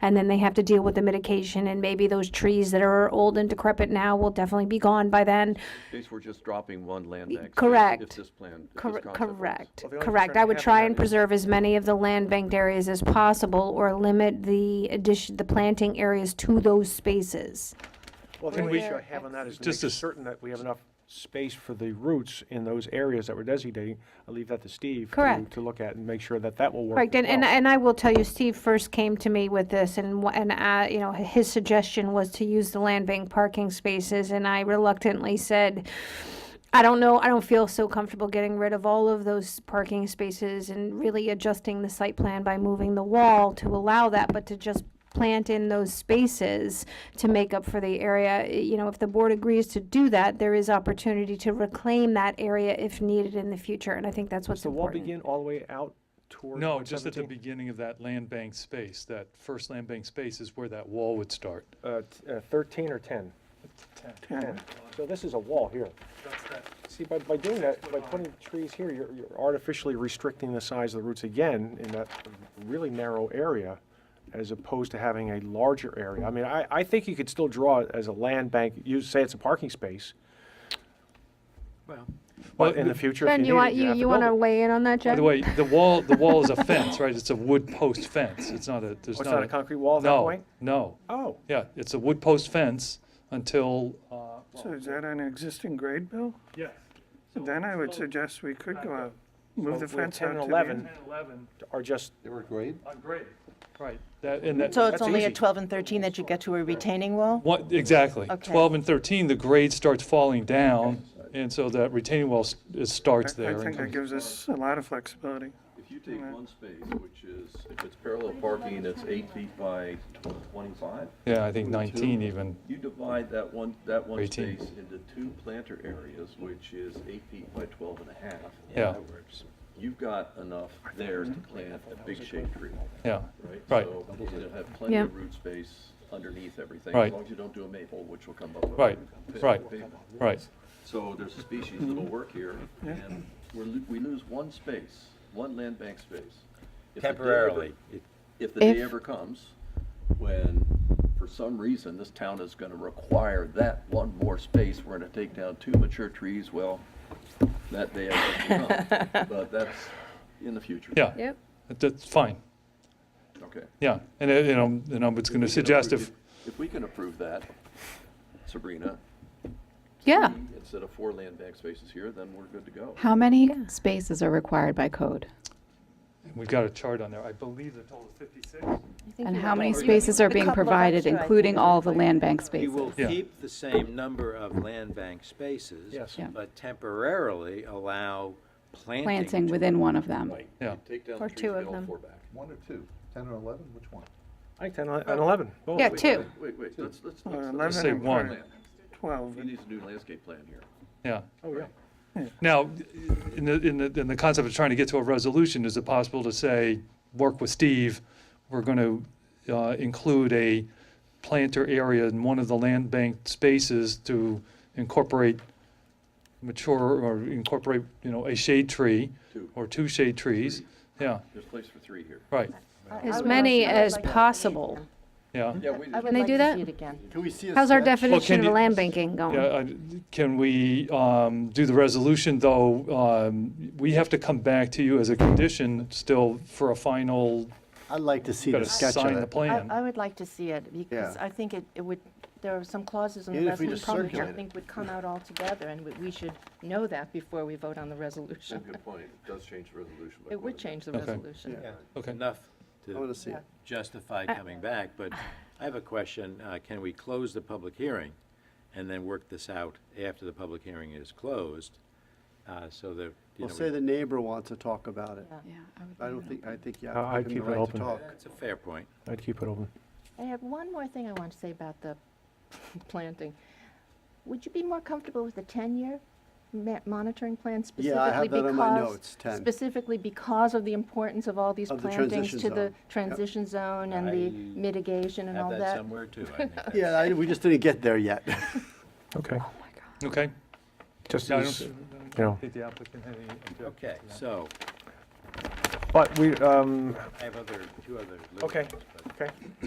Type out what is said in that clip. and then they have to deal with the mitigation, and maybe those trees that are old and decrepit now will definitely be gone by then. These were just dropping one land bank. if- If correct. this plan, if this Cor- concept works. Correct, Well, the only correct. concern I I would have try with and that is- preserve as many of the land banked areas as possible, or limit the addition, the planting areas to those spaces. Well, I think we should have on that is to Just make as- certain that we have enough space for the roots in those areas that we're designating. I'll leave that to Steve. to- Correct. To look at and make sure that that will work. Correct, as and, and, well. and I will tell you, Steve first came to me with this, and, wh- and I, you know, his suggestion was to use the land bank parking spaces, and I reluctantly said, I don't know, I don't feel so comfortable getting rid of all of those parking spaces and really adjusting the site plan by moving the wall to allow that, but to just plant in those spaces to make up for the area. Y- You know, if the board agrees to do that, there is opportunity to reclaim that area if needed in the future, and I think that's Does what's the wall important. begin all the way out towards No, just at the 117? beginning of that land bank space, that first land bank space is where that wall would start. Uh, t- uh, thirteen or ten? Ten. So this is a wall here. See, by, by doing that, by putting trees here, you're, you're artificially restricting the size of the roots again in that really narrow area as opposed to having a larger area. I mean, I, I think you could still draw it as a land bank, you say it's a parking space, but in the future, if Ben, you you need it, want, you you, have to you build want to it. weigh in on that, Jen? By the way, the wall, the wall is a fence, right? It's a wood post fence. It's not a, there's Oh, It's not not a concrete wall at that point? No, no. Oh, Yeah, it's a wood post fence until, uh, So is that an existing grade, Bill? Yes. Then I would suggest we could go out, move So the we have fence 10 out and to the 11. end. and eleven are just, They were great. on grade. Right, that, and that. So it's That's only easy. at 12 and 13 that you get to a retaining wall? What, exactly. Okay. 12 and 13, the grade starts falling down, and so that retaining wall s- it starts I- there. I and think that comes- gives us a lot of flexibility. If you take one space, which is, if it's parallel parking, it's eight feet by tw- twenty-five, Yeah, I think 19 even. you divide that one, that one Eighteen. space into two planter areas, which is eight feet by twelve and a half. Yeah. You've got enough there to plant a big shade tree, Yeah, right? Right. So you'll have plenty Yeah. of root space underneath everything, as Right. long as you don't do a maple, which will come up. Right, with- right. paper. right. So there's a species that'll Mm-hmm. work here, and we're, lo- we lose one space, one land bank space. If the day ever- Temporarily. If the day If- ever comes, when, for some reason, this town is gonna require that one more space, we're gonna take down two mature trees, well, that day ever come. But that's in the future. Yeah. Yep. That- That's fine, Okay. If yeah. And, uh, you know, and I was we going to can suggest approve- if, If we can approve that, Sabrina, Yeah. instead of four land bank spaces here, then we're good to go. How many spaces are required by code? we've got a chart on there, I believe the total is 56. And how many spaces are being couple of provided, extra, I including all the land bank We will spaces? Yeah. keep the same number Mm-hmm. of land bank spaces. Yes. Yeah. But temporarily allow planting. Planting to- within one of them. Right. Yeah. Take down Or the two trees, get of all them. four back. One or two? Ten or eleven, which one? I think 10 and 11, both. Yeah, Wait, two. Wait, wait, let's, let's, Uh, let's- let's, say 11 and one. part 12. he needs a new landscape plan here. Yeah. Oh, yeah. Now, in the, in the, in the concept of trying to get to a resolution, is it possible to say, work with Steve, we're going to uh, include a planter area in one of the land bank spaces to incorporate mature or incorporate, you know, a shade tree Two. or two shade trees? Yeah, There's place for three here. right, As many as possible. yeah. Yeah, we, Can they do that? Can we see a? How's our sketch? definition you- of land banking going? Yeah, I- Can we um, do the resolution, though? um, We have to come back to you as a condition still for a final, I'd like to see got to the sketch of sign the it. I, plan. I would like to see it, because Yeah. I think it, it would, there are some clauses in the Even if we resolution just probably circulate I it. think would come out altogether, and we- we should know that before we vote on the that's a resolution. good point. It does change the resolution. by quite It a would bit. change the Okay. resolution. Okay. Enough I to want to see it. justify coming back, but I have a question. Uh, Can we close the public hearing and then work this out after the public hearing is closed? uh, So that, you know. Well, say we- the neighbor wants to talk about it. Yeah, I would I leave don't it think, I think you Uh, have I'd to give keep him the right it to open. talk. That's a fair point. I'd keep it open. I have one more thing I want to say about the planting. Would you be more comfortable with a 10-year ma- monitoring plan specifically? Yeah, I have that on my because- notes, 10. Specifically because of the importance of all these Of the plantings transition to the zone. Yep. transition zone and I the mitigation and all Have that that. somewhere too, I think. Yeah, I, we just didn't get there yet. Okay. Okay? Just Yeah, I as, you don't- know, think the applicant had any objection. Okay, so. But we, um, I have other, two other. little Okay. ones, but- okay.